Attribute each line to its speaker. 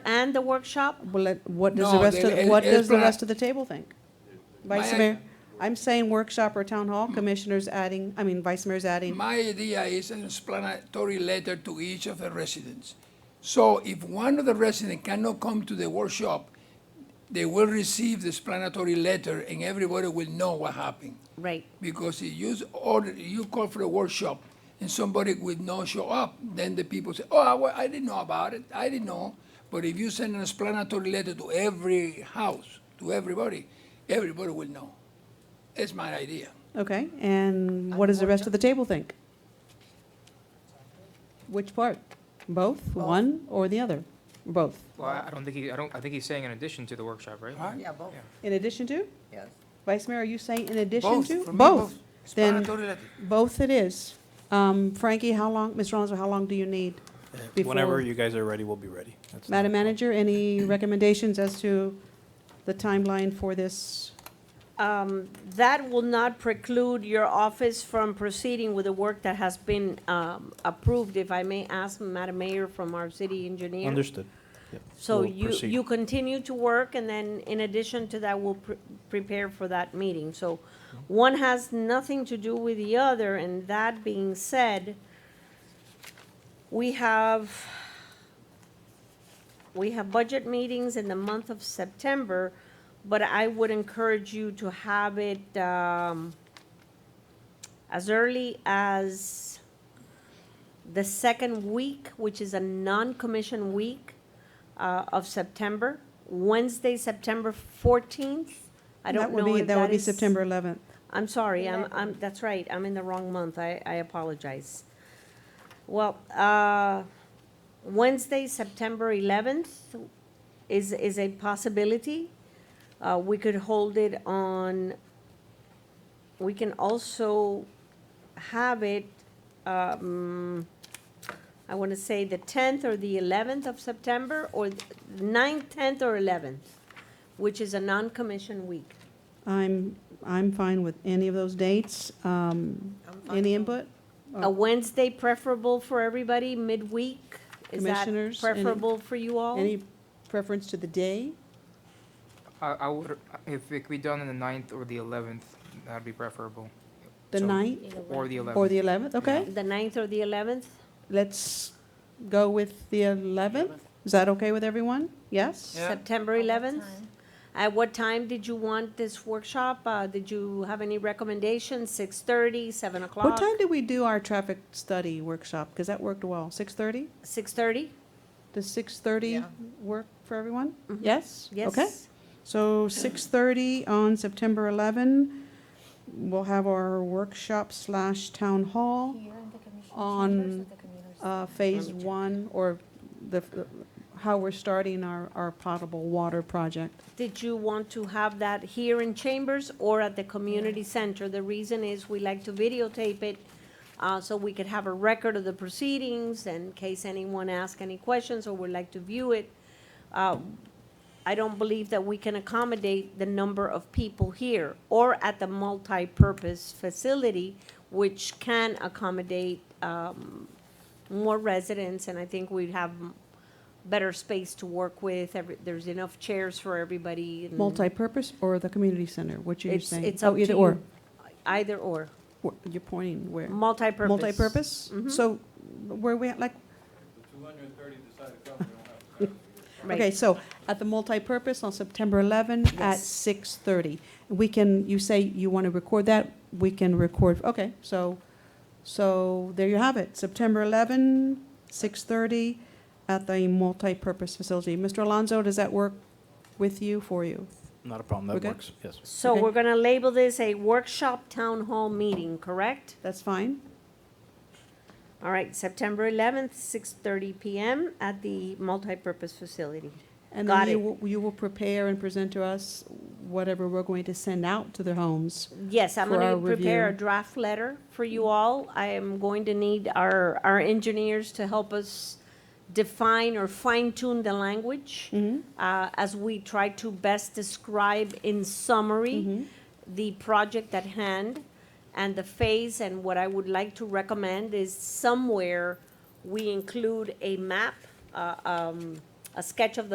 Speaker 1: and the workshop?
Speaker 2: Well, let- what does the
Speaker 3: No,
Speaker 2: rest
Speaker 3: it-
Speaker 2: of, what
Speaker 3: it's
Speaker 2: does the
Speaker 3: not-
Speaker 2: rest of the table think? Vice
Speaker 3: My-
Speaker 2: Mayor, I'm saying workshop or town hall, commissioners adding, I mean, Vice Mayor's adding.
Speaker 3: My idea is an explanatory letter to each of the residents. So if one of the residents cannot come to the workshop, they will receive the explanatory letter and everybody will know what happened.
Speaker 1: Right.
Speaker 3: Because if you order, you call for a workshop and somebody would not show up, then the people say, oh, I, wa- I didn't know about it, I didn't know. But if you send an explanatory letter to every house, to everybody, everybody will know. That's my idea.
Speaker 2: Okay, and what does the rest of the table think? Which part? Both, one or the other? Both.
Speaker 4: Well, I I don't think he, I don't, I think he's saying in addition to the workshop, right?
Speaker 3: Huh?
Speaker 5: Yeah, both,
Speaker 2: In addition to?
Speaker 5: yes.
Speaker 2: Vice Mayor, are you saying in addition
Speaker 3: Both,
Speaker 2: to?
Speaker 3: for me, both.
Speaker 2: Then,
Speaker 3: Explanatory letter.
Speaker 2: both it is. Um, Frankie, how long, Ms. Alonso, how long do you need?
Speaker 6: Whenever
Speaker 2: before-
Speaker 6: you guys are ready, we'll be ready. That's not a
Speaker 2: Madam
Speaker 6: problem.
Speaker 2: Manager, any recommendations as to the timeline for this?
Speaker 1: Um, That will not preclude your office from proceeding with the work that has been um, approved, if I may ask Madam Mayor from our city engineer.
Speaker 6: Understood. Yep.
Speaker 1: So
Speaker 6: We'll
Speaker 1: you,
Speaker 6: proceed.
Speaker 1: you continue to work, and then in addition to that, we'll pre- prepare for that meeting. So one has nothing to do with the other, and that being said, we have, we have budget meetings in the month of September, but I would encourage you to have it um, as early as the second week, which is a non-commission week uh, of September, Wednesday, September 14th. I
Speaker 2: That
Speaker 1: don't
Speaker 2: would
Speaker 1: know
Speaker 2: be-
Speaker 1: if
Speaker 2: That would be
Speaker 1: is-
Speaker 2: September 11th.
Speaker 1: I'm sorry, I'm, I'm, that's right, I'm in the wrong month, I, I apologize. Well, uh, Wednesday, September eleventh is, is a possibility. Uh, we could hold it on, we can also have it, um, I wanna say the tenth or the eleventh of September, or th- ninth, tenth, or eleventh, which is a non-commission week.
Speaker 2: I'm, I'm fine with any of those dates. Um, Any input? Oh.
Speaker 1: A Wednesday preferable for everybody, midweek? Is that
Speaker 2: Commissioners, any-
Speaker 1: preferable for you all?
Speaker 2: Any preference to the day?
Speaker 4: I, I would, if it could be done on the ninth or the eleventh, that'd be preferable.
Speaker 2: The
Speaker 4: So-
Speaker 2: ninth
Speaker 4: Or the
Speaker 2: or
Speaker 4: eleventh.
Speaker 2: the 11th? Okay,
Speaker 1: The ninth or the eleventh?
Speaker 2: let's go with the 11th. Is that okay with everyone? Yes?
Speaker 1: September eleventh? At what time did you want this workshop? Uh, did you have any recommendations? Six-thirty, seven o'clock?
Speaker 2: What time did we do our traffic study workshop? Because that worked well. 6:30?
Speaker 1: Six-thirty?
Speaker 2: Does 6:30
Speaker 5: Yeah.
Speaker 2: work for everyone? Yes?
Speaker 1: Mm-hmm. Yes?
Speaker 2: Okay. So 6:30 on September 11, we'll have our workshop slash town hall on uh, Phase 1, or the, how we're starting our, our potable water project.
Speaker 1: Did you want to have that here in Chambers or at the community center? The reason is we like to videotape it, uh, so we could have a record of the proceedings in case anyone asks any questions or would like to view it. Uh, I don't believe that we can accommodate the number of people here or at the multipurpose facility, which can accommodate, um, more residents, and I think we'd have better space to work with. Every, there's enough chairs for everybody. and
Speaker 2: Multipurpose or the community center, what are you
Speaker 1: Mm. It's-
Speaker 2: saying?
Speaker 1: it's up
Speaker 2: Oh,
Speaker 1: to
Speaker 2: either
Speaker 1: you.
Speaker 2: or.
Speaker 1: Either or,
Speaker 2: Wh- You're pointing where?
Speaker 1: multipurpose. Mm-hmm.
Speaker 2: Multipurpose? So where we, at, like,
Speaker 1: Right.
Speaker 2: Okay, so at the multipurpose on September 11 at
Speaker 1: Yes.
Speaker 2: 6:30. We can, you say you want to record that, we can record, okay, so, so there you have it. September 11, 6:30 at the multipurpose facility. Mr. Alonso, does that work with you, for you?
Speaker 6: Not a problem.
Speaker 2: Okay.
Speaker 6: That works. Yes.
Speaker 1: So
Speaker 2: okay.
Speaker 1: we're gonna label this a workshop town hall meeting, correct?
Speaker 2: That's fine?
Speaker 1: All right, September eleventh, six thirty PM at the multipurpose facility.
Speaker 2: And
Speaker 1: Got
Speaker 2: then you
Speaker 1: it.
Speaker 2: will- you will prepare and present to us whatever we're going to send out to their homes.
Speaker 1: Yes, I'm
Speaker 2: For
Speaker 1: gonna
Speaker 2: our
Speaker 1: prepare a
Speaker 2: review.
Speaker 1: draft letter for you all. I am going to need our, our engineers to help us define or fine tune the language uh, as we try to best describe in summary the project at hand and the phase. And what I would like to recommend is somewhere we include a map, uh, um, a sketch of the